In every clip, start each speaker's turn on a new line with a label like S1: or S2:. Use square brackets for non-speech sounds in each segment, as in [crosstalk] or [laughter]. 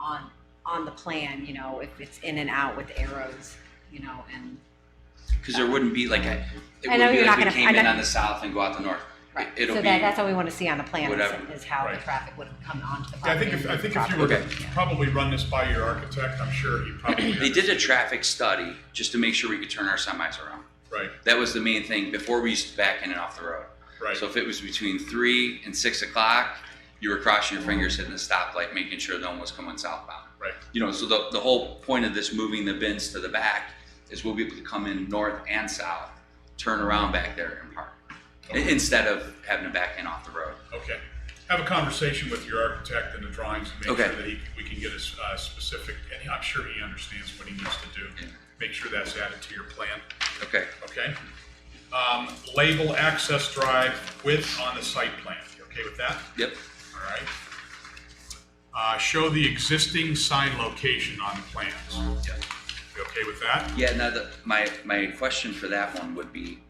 S1: on, on the plan, you know, if it's in and out with arrows, you know, and,
S2: Because there wouldn't be like a, it
S1: I know
S2: wouldn't be
S1: you're not
S2: like we
S1: gonna-
S2: came
S1: I'm
S2: in
S1: not-
S2: on the south and go out the north.
S1: right.
S2: It'll
S1: So
S2: be-
S1: that, that's what we want to see on the plan,
S2: Whatever.
S1: is- is how the
S3: Right.
S1: traffic would have come onto the
S3: Yeah, I
S1: property.
S3: think if, I
S1: and
S3: think if you
S1: through
S3: were
S1: the
S3: to
S2: Okay.
S3: probably run this by your architect, I'm sure he probably.
S2: They did a traffic study just to make sure we could turn our semis around.
S3: Right,
S2: That was the main thing. Before we used to back in and off the road.
S3: right.
S2: So if it was between three and six o'clock, you were crossing your fingers hitting the stoplight, making sure no one was coming southbound.
S3: Right.
S2: You know, so the, the whole point of this moving the bins to the back is we'll be able to come in north and south, turn around back there and park. I-
S3: Okay.
S2: Instead of having to back in off the road.
S3: Okay. Have a conversation with your architect and the drawings and make
S2: Okay.
S3: sure that he, we can get a s- uh, specific, and I'm sure he understands what he needs to do.
S2: Yeah.
S3: Make sure that's added to your plan,
S2: Okay,
S3: okay? Um, label access drive width on the site plan. You okay with that?
S2: yep,
S3: All right. Uh, show the existing sign location on the plans.
S2: yep.
S3: You okay with that?
S2: Yeah, now the, my, my question for that one would be,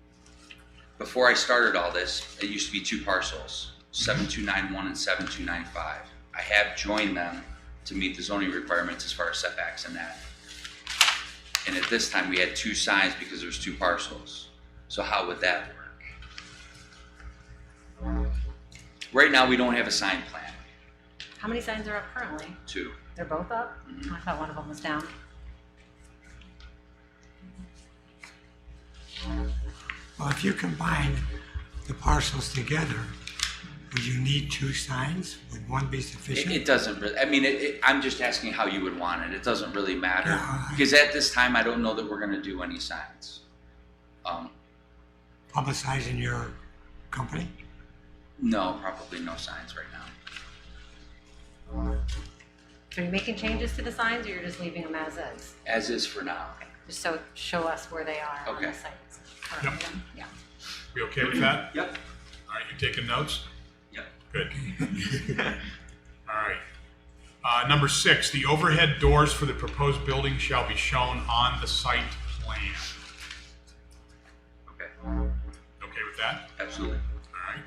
S2: before I started all this, it used to be two parcels, seven two nine one and seven two nine five. I have joined them to meet the zoning requirements as far as setbacks and that. And at this time, we had two signs because there was two parcels. So how would that work? Right now, we don't have a sign plan,
S1: How many signs are up currently?
S2: too.
S1: They're both up?
S2: Mhm.
S1: I thought one of them was down.
S4: Well, if you combine the parcels together, would you need two signs? Would one be
S2: It,
S4: sufficient?
S2: it doesn't really, I mean, it, it, I'm just asking how you would want it. It doesn't really matter.
S4: Yeah.
S2: Because at this time, I don't know that we're gonna do any signs. Um,
S4: Publicizing your company?
S2: no, probably no signs right now.
S1: Are you making changes to the signs or you're just leaving them as is?
S2: As is for now.
S1: Just so, show us where they are on the
S2: Okay.
S1: sites. currently. Yeah.
S3: We okay with that?
S2: Yep.
S3: All right, you taking notes?
S2: Yep.
S3: Good. [laughs] All right. Uh, number six, the overhead doors for the proposed building shall be shown on the site plan.
S2: Okay,
S3: Okay with that?
S2: absolutely.
S3: All right.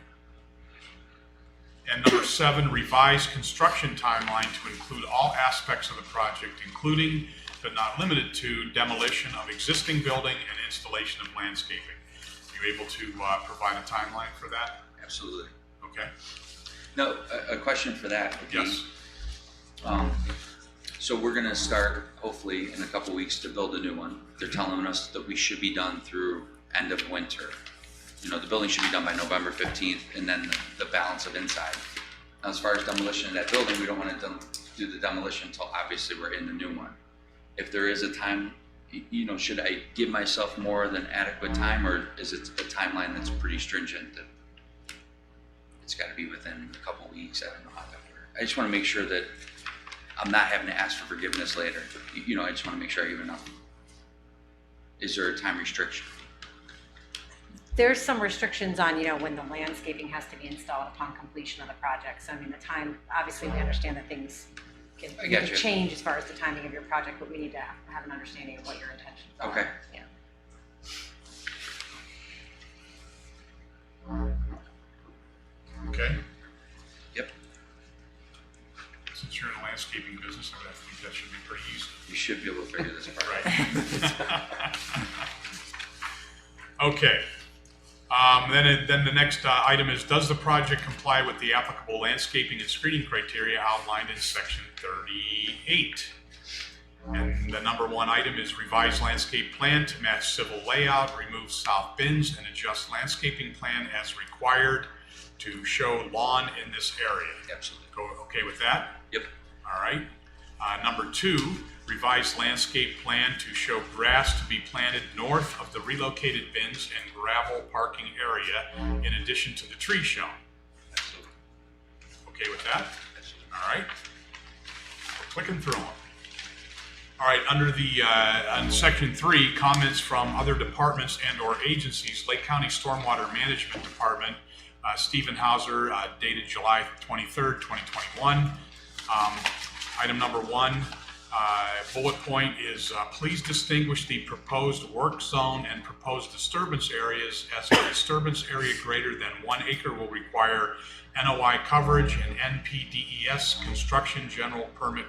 S3: And number seven, revise construction timeline to include all aspects of the project, including but not limited to demolition of existing building and installation of landscaping. You able to, uh, provide a timeline for that?
S2: Absolutely.
S3: Okay,
S2: No, a, a question for that would be.
S3: yes,
S2: Um, so we're gonna start hopefully in a couple weeks to build a new one. They're telling us that we should be done through end of winter. You know, the building should be done by November fifteenth and then the, the balance of inside. Now, As far as demolition of that building, we don't wanna dem- do the demolition until obviously we're in the new one. If there is a time, y- you know, should I give myself more than adequate time or is it a timeline that's pretty stringent that it's gotta be within a couple weeks? I don't know how that works. I just wanna make sure that I'm not having to ask for forgiveness later. You, you know, I just want to make sure I give enough. Is there a time restriction?
S1: There's some restrictions on, you know, when the landscaping has to be installed upon completion of the project. So I mean, the time, obviously, we understand that things can
S2: I
S1: you can
S2: gotcha.
S1: change as far as the timing of your project, but we need to have have an understanding of what your intentions are.
S2: Okay.
S1: Yeah.
S3: okay.
S2: Yep.
S3: Since you're in the landscaping business, I would think that should be pretty easy.
S2: You should be able to figure this part out.
S3: Right. [laughs] Okay. Um, Then, it- then the next uh, item is, does the project comply with the applicable landscaping and screening criteria outlined in section 38? And the number one item is revise landscape plan to match civil layout, remove south bins, and adjust landscaping plan as required to show lawn in this area.
S2: Absolutely.
S3: Go, okay with that?
S2: Yep.
S3: All right. Uh, number two, revised landscape plan to show grass to be planted north of the relocated bins and gravel parking area in addition to the tree shown.
S2: Absolutely.
S3: Okay with that?
S2: Absolutely.
S3: All right. We're clicking through them. All right, under the, uh, on section three, comments from other departments and/or agencies, Lake County Stormwater Management Department, uh, Stephen Hauser, uh, dated July twenty-third, twenty twenty-one. Um, item number one, uh, bullet point is, uh, please distinguish the proposed work zone and proposed disturbance areas as a disturbance area greater than one acre will require NOI coverage and NPDES E construction general permit